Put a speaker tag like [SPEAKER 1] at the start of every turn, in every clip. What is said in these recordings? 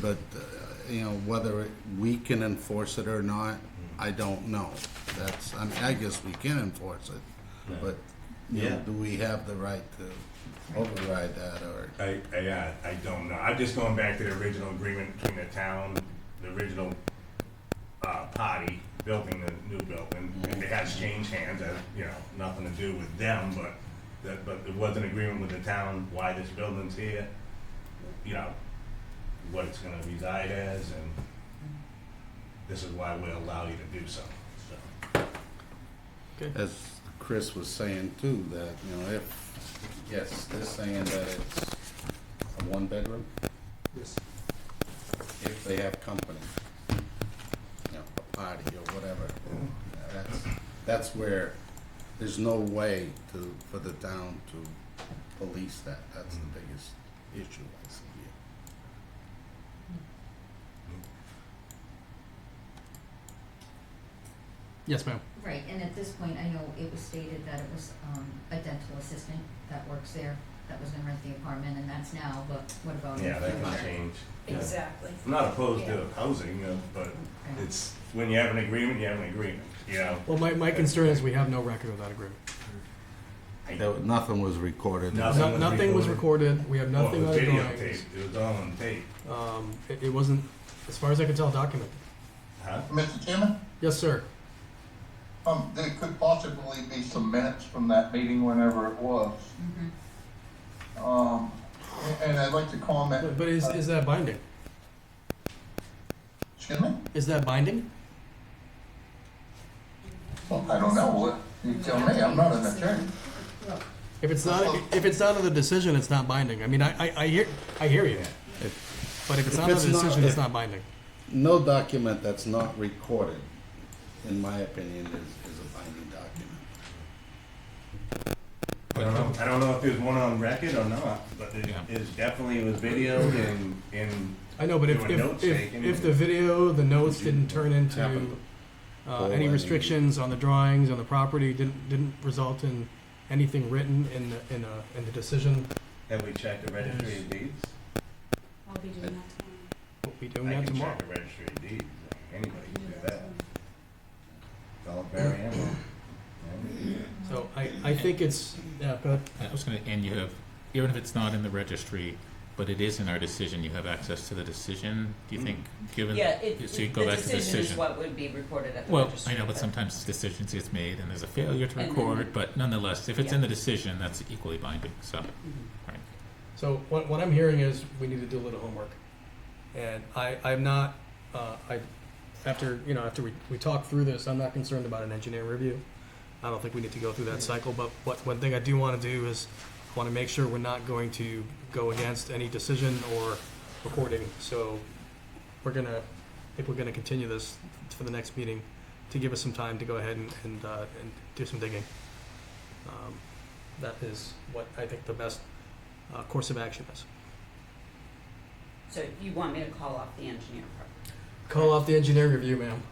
[SPEAKER 1] but, uh, you know, whether we can enforce it or not, I don't know. That's, I mean, I guess we can enforce it, but, you know,
[SPEAKER 2] Yeah.
[SPEAKER 1] do we have the right to override that or?
[SPEAKER 3] I, I, uh, I don't know. I'm just going back to the original agreement between the town, the original uh, party building the new building. And it has changed hands, uh, you know, nothing to do with them, but that, but it was an agreement with the town why this building's here, you know, what it's gonna reside as, and this is why we allow you to do so, so.
[SPEAKER 1] as Chris was saying too, that, you know, if, yes, they're saying that it's a one-bedroom? Yes. If they have company, you know, a party or whatever, that's, that's where, there's no way to, for the town to police that, that's the biggest issue I see here.
[SPEAKER 4] Yes, ma'am.
[SPEAKER 5] Right, and at this point, I know it was stated that it was, um, a dental assistant that works there, that was gonna rent the apartment, and that's now, but what about in the
[SPEAKER 3] Yeah, that can
[SPEAKER 5] future?
[SPEAKER 3] change.
[SPEAKER 6] Exactly.
[SPEAKER 3] I'm not opposed to housing, uh, but it's, when you have an agreement, you have an agreement, you know?
[SPEAKER 4] Well, my, my concern is we have no record of that agreement.
[SPEAKER 3] I-
[SPEAKER 1] There, nothing was recorded.
[SPEAKER 3] Nothing.
[SPEAKER 4] No, nothing was recorded. We have
[SPEAKER 3] Well,
[SPEAKER 4] nothing
[SPEAKER 3] it
[SPEAKER 4] on
[SPEAKER 3] was
[SPEAKER 4] the
[SPEAKER 3] videotaped.
[SPEAKER 4] drawings.
[SPEAKER 3] It was all on tape,
[SPEAKER 4] Um, it, it wasn't, as far as I can tell, documented.
[SPEAKER 3] huh?
[SPEAKER 7] Mr. Chairman,
[SPEAKER 4] Yes, sir.
[SPEAKER 7] um, there could possibly be some minutes from that meeting whenever it was.
[SPEAKER 5] Mhm.
[SPEAKER 7] Um, and I'd like to
[SPEAKER 4] But,
[SPEAKER 7] comment.
[SPEAKER 4] but is, is that binding?
[SPEAKER 7] Uh, Excuse me?
[SPEAKER 4] Is that binding?
[SPEAKER 7] Well, I don't know. What- You tell me. I'm not an attorney.
[SPEAKER 5] Look,
[SPEAKER 4] If it's not, if it's not in the decision, it's not binding. I mean, I, I, I hear, I hear you. But if it's
[SPEAKER 1] If
[SPEAKER 4] not in the
[SPEAKER 1] it's not-
[SPEAKER 4] decision, it's
[SPEAKER 1] if-
[SPEAKER 4] not binding.
[SPEAKER 1] No document that's not recorded, in my opinion, is, is a binding document.
[SPEAKER 3] I don't know, I don't know if there's one on record or not, but it
[SPEAKER 4] Yeah.
[SPEAKER 3] is definitely was videoed and, and,
[SPEAKER 4] I know, but if,
[SPEAKER 3] There were
[SPEAKER 4] if,
[SPEAKER 3] notes
[SPEAKER 4] if,
[SPEAKER 3] taken.
[SPEAKER 4] if the video, the notes didn't turn into,
[SPEAKER 1] Happened.
[SPEAKER 4] uh,
[SPEAKER 1] Or
[SPEAKER 4] any
[SPEAKER 1] any-
[SPEAKER 4] restrictions on the drawings, on the property, didn't, didn't result in anything written in, the- in a, in the decision,
[SPEAKER 3] have we checked the registry of deeds?
[SPEAKER 6] I'll be doing that tomorrow.
[SPEAKER 4] we'll be doing that
[SPEAKER 3] I
[SPEAKER 4] tomorrow.
[SPEAKER 3] can check the registry of deeds, anybody can do that. It's all very ammo.
[SPEAKER 4] So I, I think it's, uh, yeah, go ahead.
[SPEAKER 8] I was gonna, and you have, even if it's not in the registry, but it is in our decision, you have access to the decision, do you think, given?
[SPEAKER 9] Mm. Yeah, it,
[SPEAKER 8] So you
[SPEAKER 9] it-
[SPEAKER 8] go
[SPEAKER 9] the
[SPEAKER 8] back to the
[SPEAKER 9] decision is
[SPEAKER 8] decision.
[SPEAKER 9] what would be recorded at the
[SPEAKER 8] Well,
[SPEAKER 9] registry.
[SPEAKER 8] I know, but sometimes decisions is made and there's a failure to
[SPEAKER 9] And then-
[SPEAKER 8] record, but nonetheless, if it's in the decision, that's equally binding, so, right.
[SPEAKER 4] So what, what I'm hearing is we need to do a little homework. And I, I'm not, uh, I, after, you know, after we, we talk through this, I'm not concerned about an engineering review. I don't think we need to go through that cycle, but what, one thing I do wanna do is, wanna make sure we're not going to go against any decision or recording, so we're gonna, I think we're gonna continue this for the next meeting to give us some time to go ahead and, and, uh, and do some digging. Um, That is what I think the best uh, course of action is.
[SPEAKER 9] So you want me to call off the engineer part?
[SPEAKER 4] Call off the engineering review, ma'am.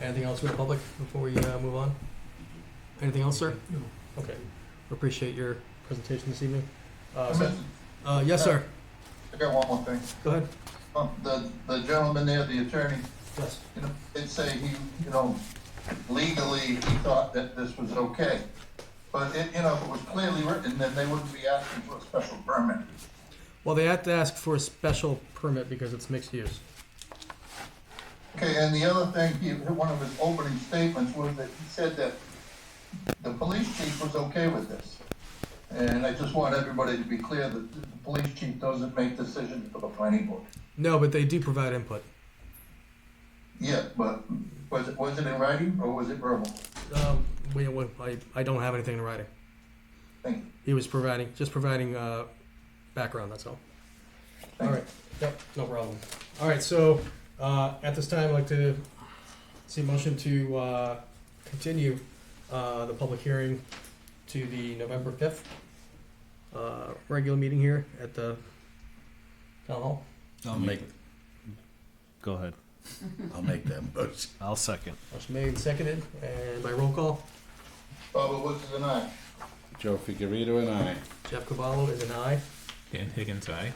[SPEAKER 4] Anything else from the public before we uh, move on? Anything else, sir? No. Okay. We Appreciate your presentation this evening. Uh, so-
[SPEAKER 7] Mr.
[SPEAKER 4] uh, yes, sir.
[SPEAKER 7] I got one more thing.
[SPEAKER 4] Go ahead.
[SPEAKER 7] Um, the, the gentleman there, the attorney,
[SPEAKER 4] Yes.
[SPEAKER 7] you know, did say he, you know, legally, he thought that this was okay. But it, you know, if it was clearly written, then they wouldn't be asking for a special permit.
[SPEAKER 4] Well, they have to ask for a special permit because it's mixed use.
[SPEAKER 7] Okay, and the other thing, he, one of his opening statements was that he said that the police chief was okay with this. And I just want everybody to be clear that the police chief doesn't make decisions for the planning board.
[SPEAKER 4] No, but they do provide input.
[SPEAKER 7] Yeah, but was it, was it in writing or was it verbal?
[SPEAKER 4] Um, we, we, I, I don't have anything in writing.
[SPEAKER 7] Thank you.
[SPEAKER 4] He was providing, just providing uh, background, that's all. All
[SPEAKER 7] Thank you.
[SPEAKER 4] right, yep, no problem. All right, so, uh, at this time, I'd like to see a motion to, uh, continue, uh, the public hearing to the November fifth, uh, regular meeting here at the town hall.
[SPEAKER 1] I'll make,
[SPEAKER 2] Go ahead.
[SPEAKER 1] I'll make that motion.
[SPEAKER 2] I'll second.
[SPEAKER 4] Motion made and seconded, and by roll call,
[SPEAKER 7] Bubba Woods is an aye.
[SPEAKER 1] Joe Figurito and I.
[SPEAKER 4] Jeff Cavallo is an aye.
[SPEAKER 8] Dan Higgins, aye.